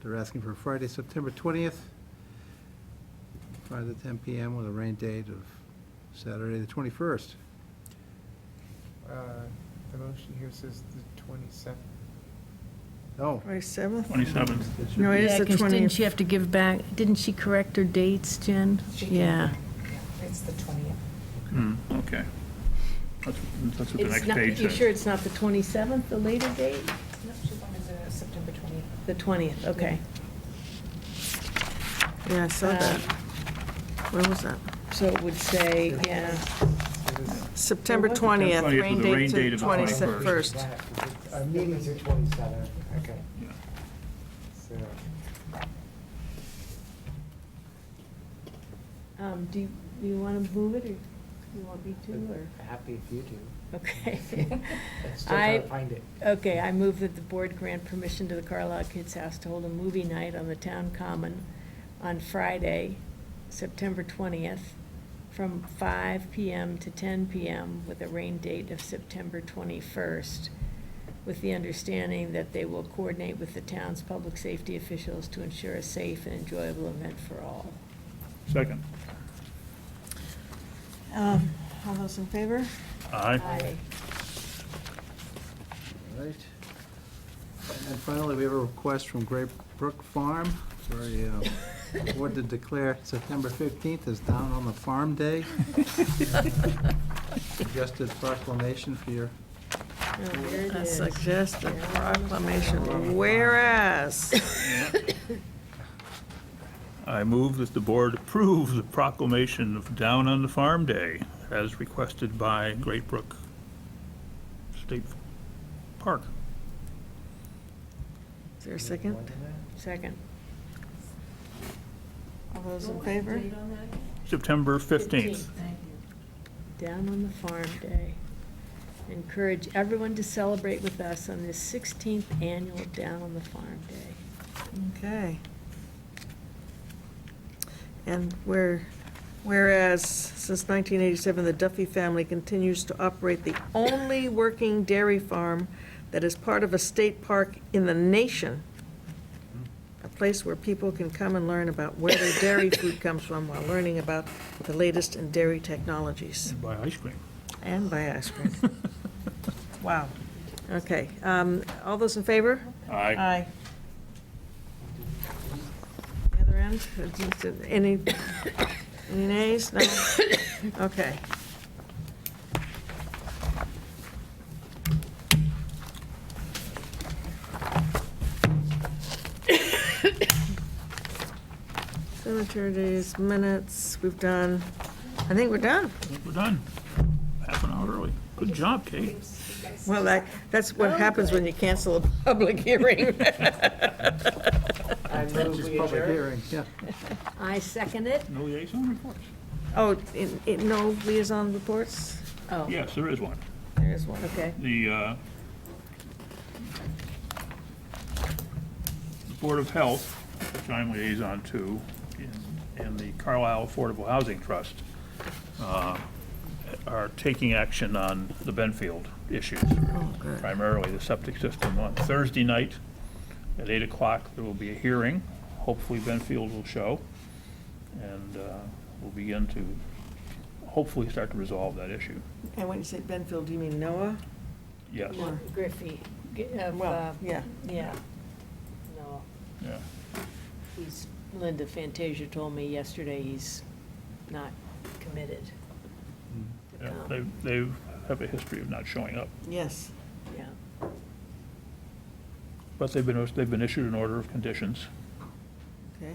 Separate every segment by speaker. Speaker 1: They're asking for Friday, September 20th, 5 to 10 PM with a rain date of Saturday, the 21st.
Speaker 2: Uh, The motion here says the 27th.
Speaker 1: Oh.
Speaker 3: 27th?
Speaker 4: Twenty-seventh.
Speaker 1: it should
Speaker 3: No,
Speaker 1: be-
Speaker 3: it is
Speaker 5: Yeah,
Speaker 3: the
Speaker 5: 'cause didn't she
Speaker 3: 20th.
Speaker 5: have to give back, didn't she correct her dates, Jen?
Speaker 6: She can-
Speaker 5: Yeah.
Speaker 6: It's the twentieth.
Speaker 4: Hmm, okay. That's, that's what the next
Speaker 5: It's not-
Speaker 4: page
Speaker 5: You
Speaker 4: says.
Speaker 5: sure it's not the 27th, the later date?
Speaker 6: No, she wanted the September twentieth.
Speaker 5: The 20th, okay.
Speaker 3: Yeah, I saw
Speaker 5: Um,
Speaker 3: that. Where was that?
Speaker 5: So it would say, yeah,
Speaker 2: It is-
Speaker 3: September
Speaker 5: was a-
Speaker 3: 20th,
Speaker 4: 20th
Speaker 3: rain
Speaker 4: with a rain
Speaker 3: date
Speaker 4: date
Speaker 3: to
Speaker 4: of the
Speaker 3: 21st.
Speaker 2: Our meeting's are 27th, okay.
Speaker 4: Yeah.
Speaker 2: So,
Speaker 5: um, do you, do you want to move it, or do you want me to, or?
Speaker 2: happy if you do.
Speaker 5: Okay.
Speaker 2: Let's still
Speaker 5: I-
Speaker 2: try to find it.
Speaker 5: Okay, I move that the board grant permission to the Carlisle Kids House to hold a movie night on the town common on Friday, September twentieth, from five PM to ten PM with a rain date of September twenty-first, with the understanding that they will coordinate with the town's public safety officials to ensure a safe and enjoyable event for all.
Speaker 4: Second.
Speaker 3: Um, All those in favor?
Speaker 4: Aye.
Speaker 1: All right. And finally, we have a request from Great Brook Farm for a uh, board to declare September 15th as Down on the Farm Day. Suggested proclamation for your
Speaker 5: Oh, there it
Speaker 3: I
Speaker 5: is.
Speaker 3: suggest a proclamation, whereas,
Speaker 4: I move that the board approve the proclamation of Down on the Farm Day as requested by Great Brook State Park.
Speaker 3: is there a second?
Speaker 5: Second.
Speaker 3: All those in favor?
Speaker 4: September fifteenth.
Speaker 5: Down on the Farm Day. Encourage everyone to celebrate with us on this 16th annual Down on the Farm Day.
Speaker 3: Okay. And where, whereas, since 1987, the Duffy family continues to operate the only working dairy farm that is part of a state park in the nation, a place where people can come and learn about where their dairy food comes from while learning about the latest in dairy technologies
Speaker 4: Buy ice cream.
Speaker 3: and buy ice cream. Wow. Okay, um, all those in favor?
Speaker 4: Aye.
Speaker 3: The other end, Is it any, any nays? No? Okay. Cemeteries, minutes, we've done, I think we're done.
Speaker 4: We're done. Half an hour early. Good job, Kate.
Speaker 3: Well, that, that's what happens when you cancel a public hearing.
Speaker 2: I move
Speaker 1: Which is
Speaker 2: we
Speaker 1: public
Speaker 2: adjourn.
Speaker 1: hearing, yeah.
Speaker 5: I second it.
Speaker 4: No liaison reports?
Speaker 3: Oh, in- in- no liaison reports?
Speaker 5: Oh,
Speaker 4: Yes, there is one.
Speaker 3: There is one.
Speaker 5: okay.
Speaker 4: the, uh, the Board of Health, which I'm liaison to, and- and the Carlisle Affordable Housing Trust uh, are taking action on the Benfield issues, primarily the septic system. On Thursday night at 8 o'clock, there will be a hearing. Hopefully Benfield will show, and uh, we'll begin to hopefully start to resolve that issue.
Speaker 3: And when you say Benfield, do you mean Noah?
Speaker 4: Yes,
Speaker 5: Griffey. G- uh, uh,
Speaker 3: Well, yeah.
Speaker 5: Yeah. No,
Speaker 4: yeah.
Speaker 5: he's, Linda Fantasia told me yesterday he's not committed. to
Speaker 1: Mm.
Speaker 4: Yeah,
Speaker 5: come.
Speaker 4: They, they have a history of not showing up,
Speaker 3: Yes.
Speaker 5: Yeah.
Speaker 4: but they've been, they've been issued an order of conditions.
Speaker 3: Okay.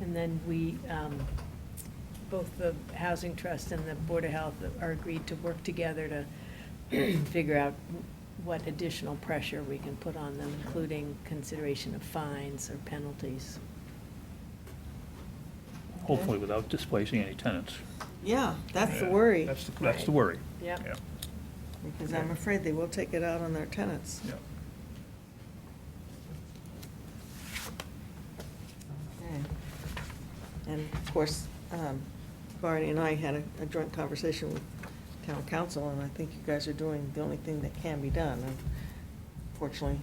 Speaker 5: And then we, um, both the Housing Trust and the Board of Health are agreed to work together to figure out what additional pressure we can put on them, including consideration of fines or penalties.
Speaker 4: Hopefully without displacing any tenants.
Speaker 3: Yeah, that's the
Speaker 4: Yeah,
Speaker 3: worry,
Speaker 4: That's, the- that's the worry.
Speaker 5: Yep.
Speaker 4: Yeah,
Speaker 3: because I'm afraid they will take it out on their tenants.
Speaker 4: yeah.
Speaker 3: Okay. And of course, um, Barney and I had a- a joint conversation with town council, and I think you guys are doing the only thing that can be done. And Fortunately,